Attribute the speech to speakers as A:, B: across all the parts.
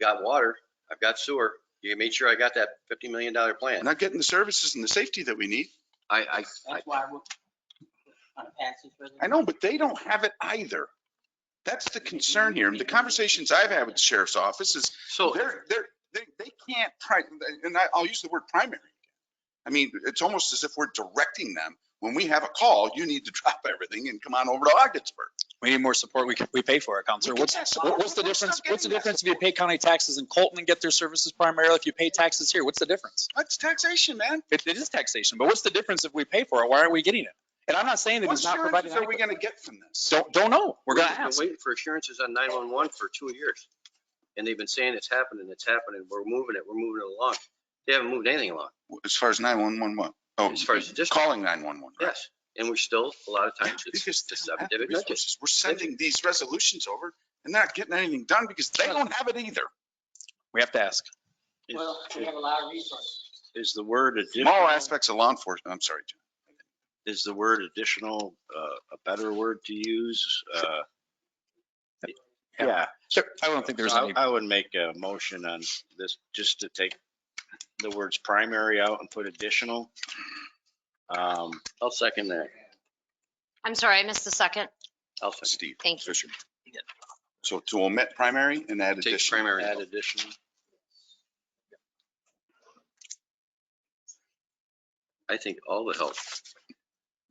A: got water, I've got sewer. You made sure I got that fifty million dollar
B: We're
A: plan.
B: not getting the services and the safety that we need.
A: I, I, I-
C: That's why we're on a passage
B: I know, but they don't have it either. That's the concern here. And the conversations I've had with the sheriff's office is
A: so,
B: they're, they're, they, they can't, pri- and I, I'll use the word primary. I mean, it's almost as if we're directing them. When we have a call, you need to drop everything and come on over to Augsburg.
D: We need more support. We, we pay for it, Counselor. What's, what- what's the difference? What's the difference if you pay county taxes in Colton and get their services primarily? If you pay taxes here, what's the difference?
B: That's taxation, man.
D: It, it is taxation, but what's the difference if we pay for it? Why aren't we getting it? And I'm not saying that
B: What
D: it's not
B: services
D: providing.
B: are we gonna get from this?
D: Don't, don't know. We're gonna
A: We've been
D: ask.
A: Waiting for assurances on nine-one-one for two years. And they've been saying it's happening, it's happening, we're moving it, we're moving it along. They haven't moved anything along,
B: As far as 911, what? Oh,
A: as far as the district,
B: calling 911. right?
A: yes. And we're still, a lot of times, it's
B: Because
A: the
B: they don't have the
A: subdivision. budget.
B: resources. We're sending these resolutions over and they're not getting anything done because they don't have it either.
D: We have to ask.
C: Well, we have a lot of resources.
E: Is the word
B: Small
E: additional,
B: aspects of law enforcement, I'm sorry. Jim.
E: is the word additional uh, a better word to use? Uh, Yeah,
D: Sure. I don't think there's
E: I
D: any,
E: I would make a motion on this, just to take the words primary out and put additional. Um,
A: I'll second that.
F: I'm sorry, I missed the second.
A: I'll second.
B: Steve
F: Thank you.
B: Fisher. So to omit primary and add
A: Take
B: additional.
A: primary.
E: Add additional.
A: I think all the help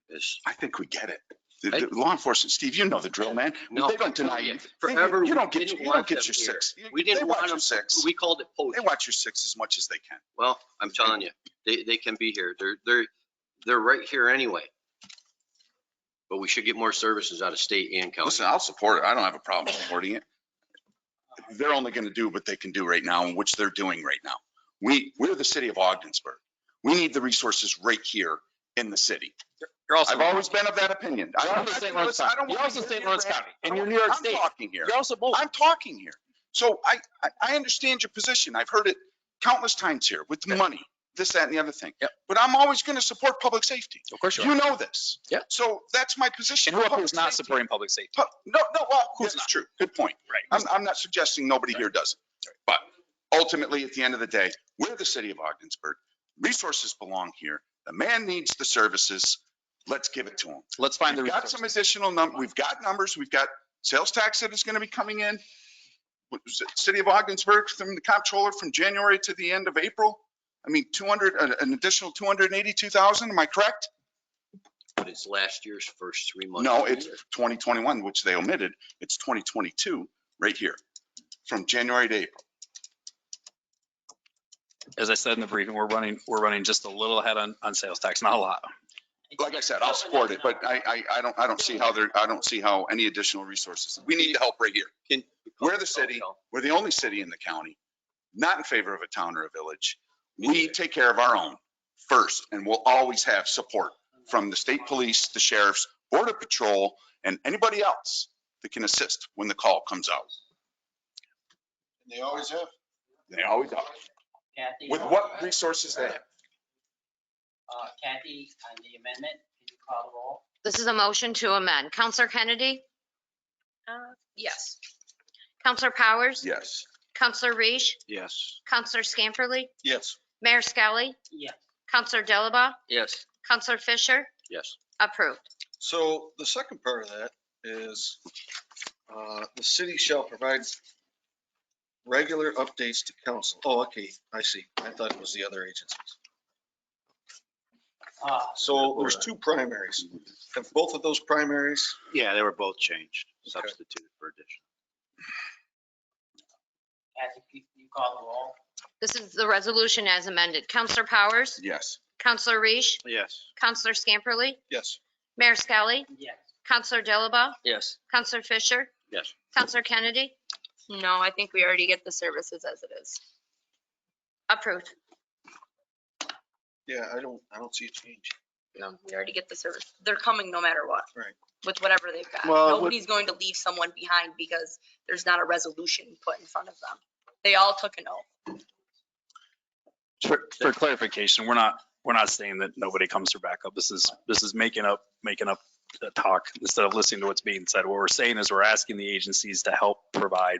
A: is,
B: I think we get it. The- the Law enforcement, Steve, you know the drill, man.
A: No.
B: They don't deny you. They-
A: Forever,
B: You don't
A: we
B: get,
A: didn't
B: you don't
A: want
B: get
A: them
B: your
A: here.
B: six. You-
A: we
B: They
A: didn't
B: watch
A: want
B: your
A: them,
B: six.
A: we called it post.
B: They watch your six as much as they can.
A: Well, I'm telling you, they, they can be here. They're, they're, they're right here anyway. But we should get more services out of state and county.
B: Listen, I'll support it. I don't have a problem supporting it. They're only going to do what they can do right now and which they're doing right now. We, we're the city of Ogden'sburg. We need the resources right here in the city.
D: you're also,
B: I've always been of that opinion. I
D: You're
B: don't-
D: also St.
B: listen,
D: Lawrence
B: I
D: County.
B: don't
D: You're
B: wanna
D: also
B: hear
D: St.
B: your
D: Lawrence
B: rant.
D: County,
B: I
D: and
B: don't
D: you're
B: wanna-
D: New York
B: I'm
D: State.
B: Talking here.
D: you're also both.
B: I'm talking here. So I, I, I understand your position. I've heard it countless times here with the money, this, that, and the other thing.
D: Yep.
B: But I'm always going to support public safety.
D: Of course you
B: You
D: are.
B: know this.
D: Yep.
B: So that's my position.
D: And who
B: Public
D: who's not
B: safety-
D: supporting public safety?
B: Pu- No, no, well, of course
D: Yes,
B: it's true. Good point.
D: Right.
B: I'm, I'm not suggesting nobody here does it. But ultimately, at the end of the day, we're the city of Ogden'sburg. Resources belong here. The man needs the services. Let's give it to him.
D: Let's find the
B: We've got some
D: resources.
B: additional num, we've got numbers, we've got sales tax that is going to be coming in. What was it? City of Ogden'sburg from the comptroller from January to the end of April. I mean, 200, an- an additional 282,000, am I correct?
A: But it's last year's first three months.
B: No,
A: of the
B: it's
A: year.
B: 2021, which they omitted. It's 2022 right here, from January to April.
D: As I said in the briefing, we're running, we're running just a little ahead on, on sales tax, not a lot.
B: Like I said, I'll support it, but I, I, I don't, I don't see how there, I don't see how any additional resources. We need the help right here.
A: Can-
B: We're the city. We're the only city in the county not in favor of a town or a village. We take care of our own first, and we'll always have support from the state police, the sheriffs, border patrol, and anybody else that can assist when the call comes out.
G: They always have.
B: They always are.
C: Kathy,
B: With what resources they have.
C: uh, Kathy, on the amendment, can you call the roll?
F: This is a motion to amend. Counselor Kennedy? Yes. Counselor Powers?
B: Yes.
F: Counselor Reese?
E: Yes.
F: Counselor Scamperly?
B: Yes.
F: Mayor Skelly?
C: Yes.
F: Counselor Dilaba?
A: Yes,
F: Counselor Fisher?
A: yes.
F: Approved.
G: So the second part of that is, uh, the city shall provide regular updates to council. Oh, okay, I see. I thought it was the other agencies.
C: Uh,
G: So there's two primaries. Have both of those primaries,
E: Yeah, they were both changed,
G: Okay.
E: substituted for additional.
C: Kathy, can you call the roll?
F: This is the resolution as amended. Counselor Powers?
B: Yes.
F: Counselor Reese?
E: Yes.
F: Counselor Scamperly?
G: yes.
F: Mayor Skelly?
C: Yes.
F: Counselor Dilaba?
A: Yes.
F: Counselor Fisher?
A: Yes.
F: Counselor Kennedy?
H: No, I think we already get the services as it is.
F: Approved.
G: Yeah, I don't, I don't see a change.
H: No, we already get the service. They're coming no matter what.
G: Right.
H: With whatever they've got.
E: Well, it would-
H: Nobody's going to leave someone behind because there's not a resolution put in front of them. They all took an oath.
D: For, for clarification, we're not, we're not saying that nobody comes for backup. This is, this is making up, making up the talk instead of listening to what's being said. What we're saying is we're asking the agencies to help provide